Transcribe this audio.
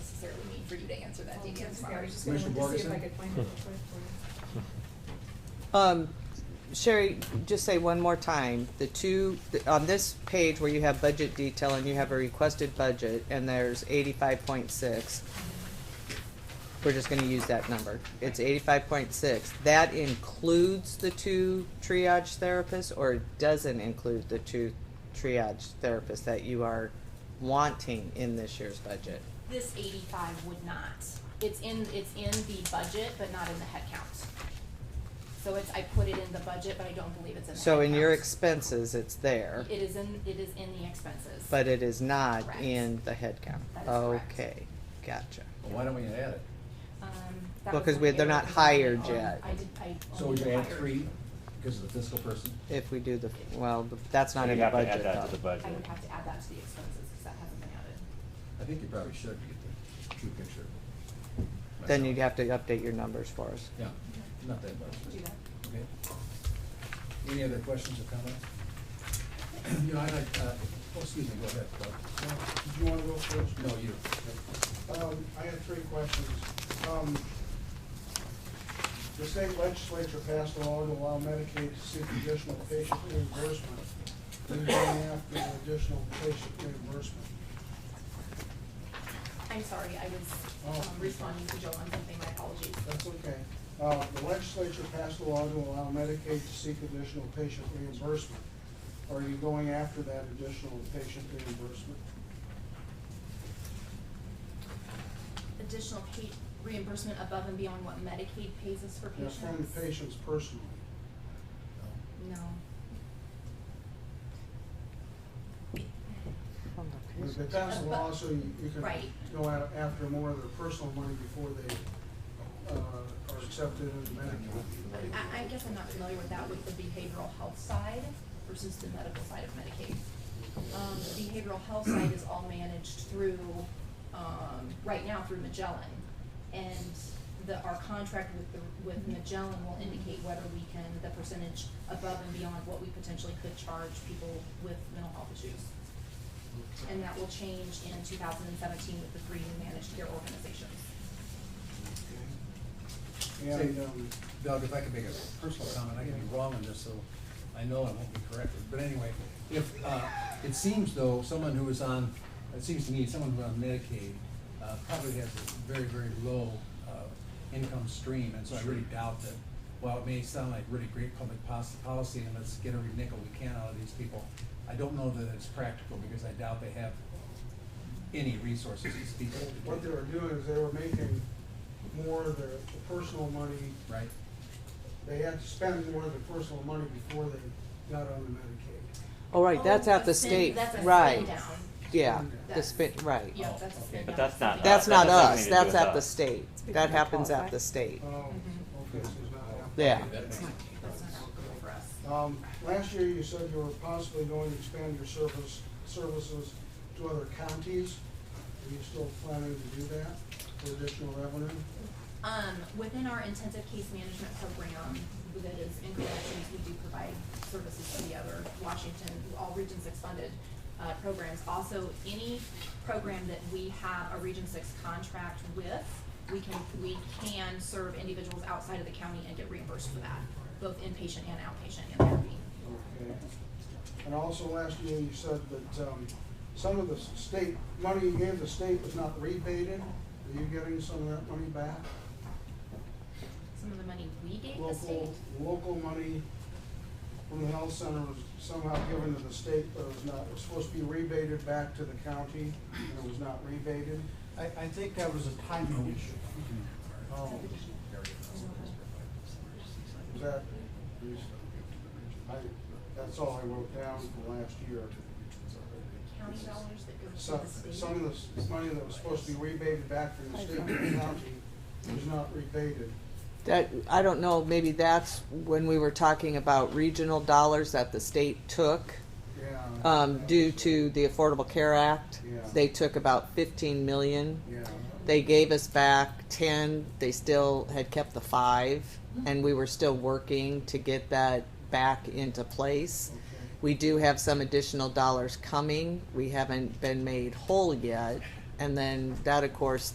for you to answer that Yeah, detail I tomorrow. was just gonna Commissioner look to see if I Borgeson? could find it real quick for Um, Sherry, just say one more time, the two, the- on this page where you have budget detail and you have a requested budget, and there's eighty-five point six, we're just gonna use that number, it's eighty-five point six, that includes the two triage therapists, or it doesn't include the two triage therapists that you are wanting in this year's budget? This eighty-five would not. It's in, it's in the budget, but not in the headcount. So it's, I put it in the budget, but I don't believe it's in the So in your headcount. expenses, it's there, It is in, it is in the expenses. but it is not Correct. in the headcount? That is correct. Okay, gotcha. Well, why don't we add it? Um, that Well, was 'cause an we- they're error not because I hired only- yet. I did, I So only we add hired- three because of the fiscal person? If we do the, well, that's not So in you the have to add budget that to the though. I would budget. have to add that to the expenses, because that hasn't been added. I think you probably should to get the true picture. Then you'd have to update your numbers for us. Yeah, not that much. Do that. Okay. Any other questions or comments? You know, I'd like, uh, oh, excuse me, go ahead, Doug. Did you want to go first? No, you. Um, I have three questions. Um, The state legislature passed a law to allow Medicaid to seek additional patient reimbursement. They're going after the additional patient reimbursement. I'm sorry, I Oh. was um, responding to Joe on something, my apologies. That's okay. Uh, The legislature passed a law to allow Medicaid to seek additional patient reimbursement. Are you going after that additional patient reimbursement? Additional pay, reimbursement above and beyond what Medicaid pays us for That's patients? from the patients personally. No. If they pass a law, so you you can Right. go out after more of their personal money before they uh, are accepted into Medicaid. I, I guess I'm not familiar with that, with the behavioral health side versus the medical side of Medicaid. Um, the behavioral health side is all managed through, um, right now through Magellan. And the, our contract with the, with Magellan will indicate whether we can, the percentage above and beyond what we potentially could charge people with mental health issues. And that will change in two thousand and seventeen with the three new managed care organizations. And, um, Doug, if I could make a personal comment, I could be wrong on this, so I know I won't be corrected. But anyway, if, uh, it seems though, someone who is on, it seems to me, someone who's on Medicaid uh, probably has a very, very low uh, income stream, and so I really doubt that, while it may sound like really great public pos- policy, and let's get every nickel we can out of these people, I don't know that it's practical, because I doubt they have any resources, these people. what they were doing is they were making more of their the personal money, Right? they had to spend more of their personal money before they got on the Medicaid. Oh, right, that's Oh, at the a spin- state, That's a spin right, down. yeah, the That's- spin, right. Yeah, Oh, that's a okay. spin But down. that's not Something That's that not doesn't us, mean to do that's with at the us. state, that happens at the state, Oh, okay, so it's not happening. yeah. That makes sense. That's not applicable for us. Um, last year you said you were possibly going to expand your service, services to other counties. Are you still planning to do that for additional revenue? Um, within our intensive case management program, that is in corrections, we do provide services to the other Washington, all Region Six funded, uh, programs. Also, any program that we have a Region Six contract with, we can, we can serve individuals outside of the county and get reimbursed for that, both inpatient and outpatient and therapy. Okay. And also last year you said that, um, some of the s- state, money you gave the state was not rebated. Are you getting some of that money back? Some of the money we gave the state, Local, local money from the health center was somehow given to the state, but it was not, it was supposed to be rebated back to the county, and it was not rebated. I, I think that was a timing issue. Oh, is that, I, that's all I wrote down from last year. county dollars that go Some, to the state. some of the s- money that was supposed to be rebated back from the state to the county was not rebated. That, I don't know, maybe that's when we were talking about regional dollars that the state took, Yeah. um, due to the Affordable Care Act. Yeah. They took about fifteen million Yeah. They gave us back 10. They still had kept the five, and we were still working to get that back into place. Okay. We do have some additional dollars coming. We haven't been made whole yet. And then that, of course,